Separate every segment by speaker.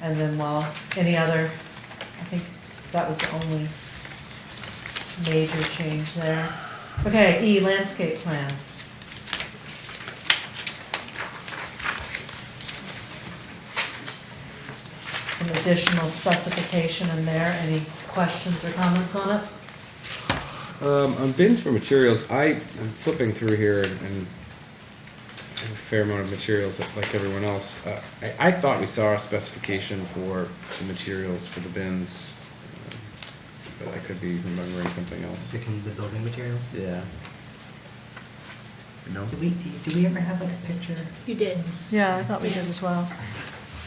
Speaker 1: And then while, any other, I think that was the only major change there. Okay, E, landscape plan. Some additional specification in there, any questions or comments on it?
Speaker 2: Um, on bins for materials, I am flipping through here and, and I have a fair amount of materials like everyone else. Uh, I, I thought we saw a specification for the materials for the bins, um, but I could be remembering something else.
Speaker 3: Sticking to the building materials?
Speaker 2: Yeah. No.
Speaker 3: Do we, do we ever have like a picture?
Speaker 4: You did.
Speaker 1: Yeah, I thought we did as well.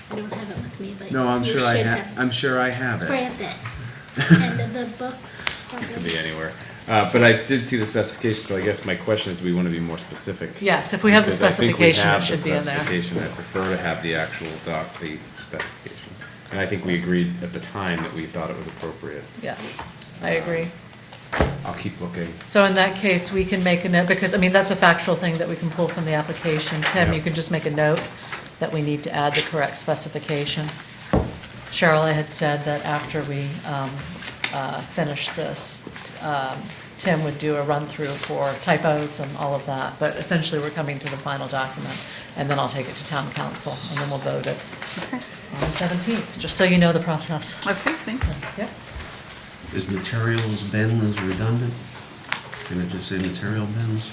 Speaker 4: I don't have it with me, but
Speaker 2: No, I'm
Speaker 4: you
Speaker 2: sure I
Speaker 4: should
Speaker 2: have. I'm sure I have
Speaker 4: It's
Speaker 2: it.
Speaker 4: right at the end of the book.
Speaker 2: It could be anywhere. Uh, but I did see the specification, so I guess my question is, do we want to be more specific?
Speaker 1: Yes, if we have the
Speaker 2: Because I think we
Speaker 1: specification, it
Speaker 2: have the
Speaker 1: should be in there.
Speaker 2: specification. I prefer to have the actual doc, the specification. And I think we agreed at the time that we thought it was appropriate.
Speaker 1: Yeah, I agree.
Speaker 2: I'll keep looking.
Speaker 1: So in that case, we can make a note, because, I mean, that's a factual thing that we can pull from the application. Tim,
Speaker 2: Yeah.
Speaker 1: you can just make a note that we need to add the correct specification. Cheryl, I had said that after we um, uh, finish this, um, Tim would do a run-through for typos and all of that, but essentially, we're coming to the final document, and then I'll take it to town council, and then we'll vote it on the 17th, just so you know the process.
Speaker 5: Okay, thanks.
Speaker 1: Yep.
Speaker 6: Is materials bin is redundant? Can it just say material bins?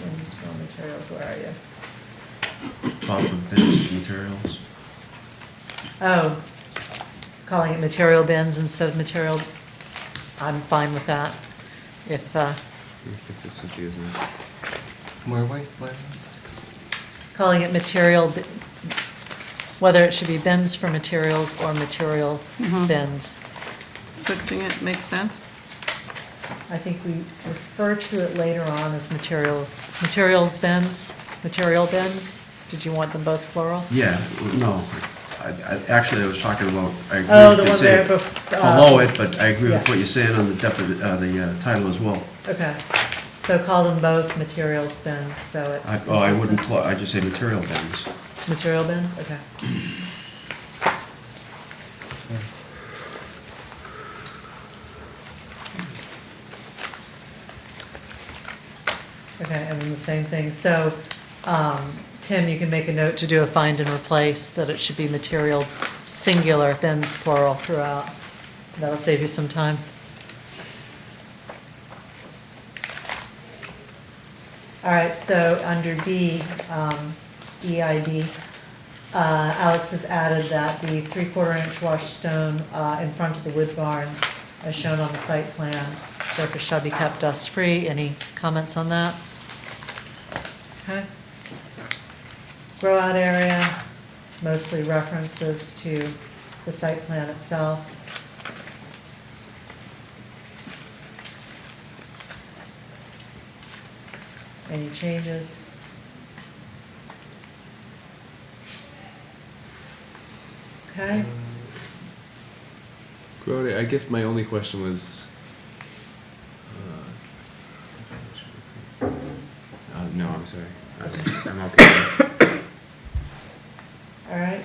Speaker 1: Bins, raw materials, where are you?
Speaker 6: Top of bins, materials?
Speaker 1: Oh, calling it material bins instead of material, I'm fine with that. If, uh,
Speaker 2: Consistency is nice.
Speaker 3: Where, where, where?
Speaker 1: calling it material, bi- whether it should be bins for materials or material
Speaker 5: Mhm.
Speaker 1: bins.
Speaker 5: Flipping it makes sense.
Speaker 1: I think we refer to it later on as material, materials bins, material bins. Did you want them both plural?
Speaker 6: Yeah, no, I, I, actually, I was talking about, I
Speaker 1: Oh, the
Speaker 6: agree with
Speaker 1: one
Speaker 6: they say
Speaker 1: there bef- uh,
Speaker 6: below it, but I agree with
Speaker 1: yeah.
Speaker 6: what you're saying on the defi, uh, the uh, title as well.
Speaker 1: Okay, so call them both materials bins, so it's.
Speaker 6: I, oh, I wouldn't,
Speaker 1: consistent.
Speaker 6: pl- I just say material bins.
Speaker 1: Material bins, okay. Okay, and then the same thing, so, um, Tim, you can make a note to do a find and replace, that it should be material singular, bins plural throughout. That'll save you some time. All right, so under B, um, EIB, uh, Alex has added that the three-quarter inch wash stone uh, in front of the wood barn, as shown on the site plan, surface shall be kept dust-free. Any comments on that? Okay. Grow-out area, mostly references to the site plan itself. Any changes? Okay,
Speaker 2: Grody, I guess my only question was. uh, Uh, no, I'm sorry. I'm- I'm okay.
Speaker 1: all right.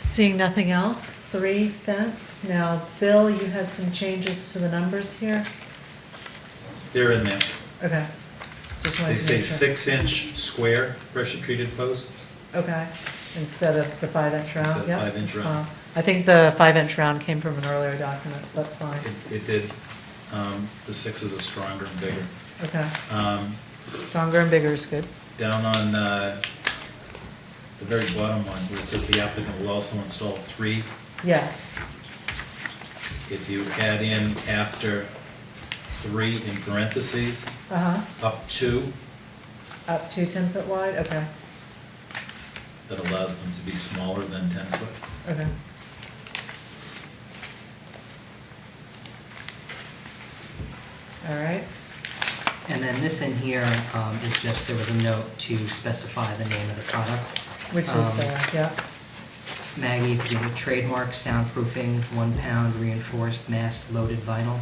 Speaker 1: Seeing nothing else, three fence. Now, Bill, you had some changes to the numbers here?
Speaker 7: They're in there.
Speaker 1: Okay. Just wanted
Speaker 7: They
Speaker 1: to
Speaker 7: say
Speaker 1: make sure.
Speaker 7: six-inch square pressure-treated posts.
Speaker 1: Okay, instead of the five-inch round,
Speaker 7: Instead
Speaker 1: yeah.
Speaker 7: of five-inch
Speaker 1: that's
Speaker 7: round.
Speaker 1: fine. I think the five-inch round came from an earlier document, so that's fine.
Speaker 7: It it did, um, the sixes are stronger and bigger.
Speaker 1: Okay,
Speaker 7: Um,
Speaker 1: stronger and bigger is good.
Speaker 7: Down on uh, the very bottom one, where it says the applicant will also install three,
Speaker 1: Yes,
Speaker 7: if you add in after three in parentheses,
Speaker 1: uh-huh,
Speaker 7: up two,
Speaker 1: up to 10 foot wide, okay,
Speaker 7: that allows them to be smaller than 10 foot.
Speaker 1: okay. All right,
Speaker 3: And then this in here um, is just, there was a note to specify the name of the product.
Speaker 1: which is
Speaker 3: Um,
Speaker 1: the, yeah,
Speaker 3: Maggie, if you would trademark soundproofing, one pound reinforced mass loaded vinyl.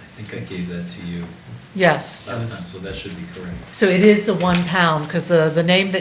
Speaker 7: I think I gave that to you
Speaker 1: yes.
Speaker 7: last time, so that should be correct.
Speaker 1: So it is the one pound, because the, the name that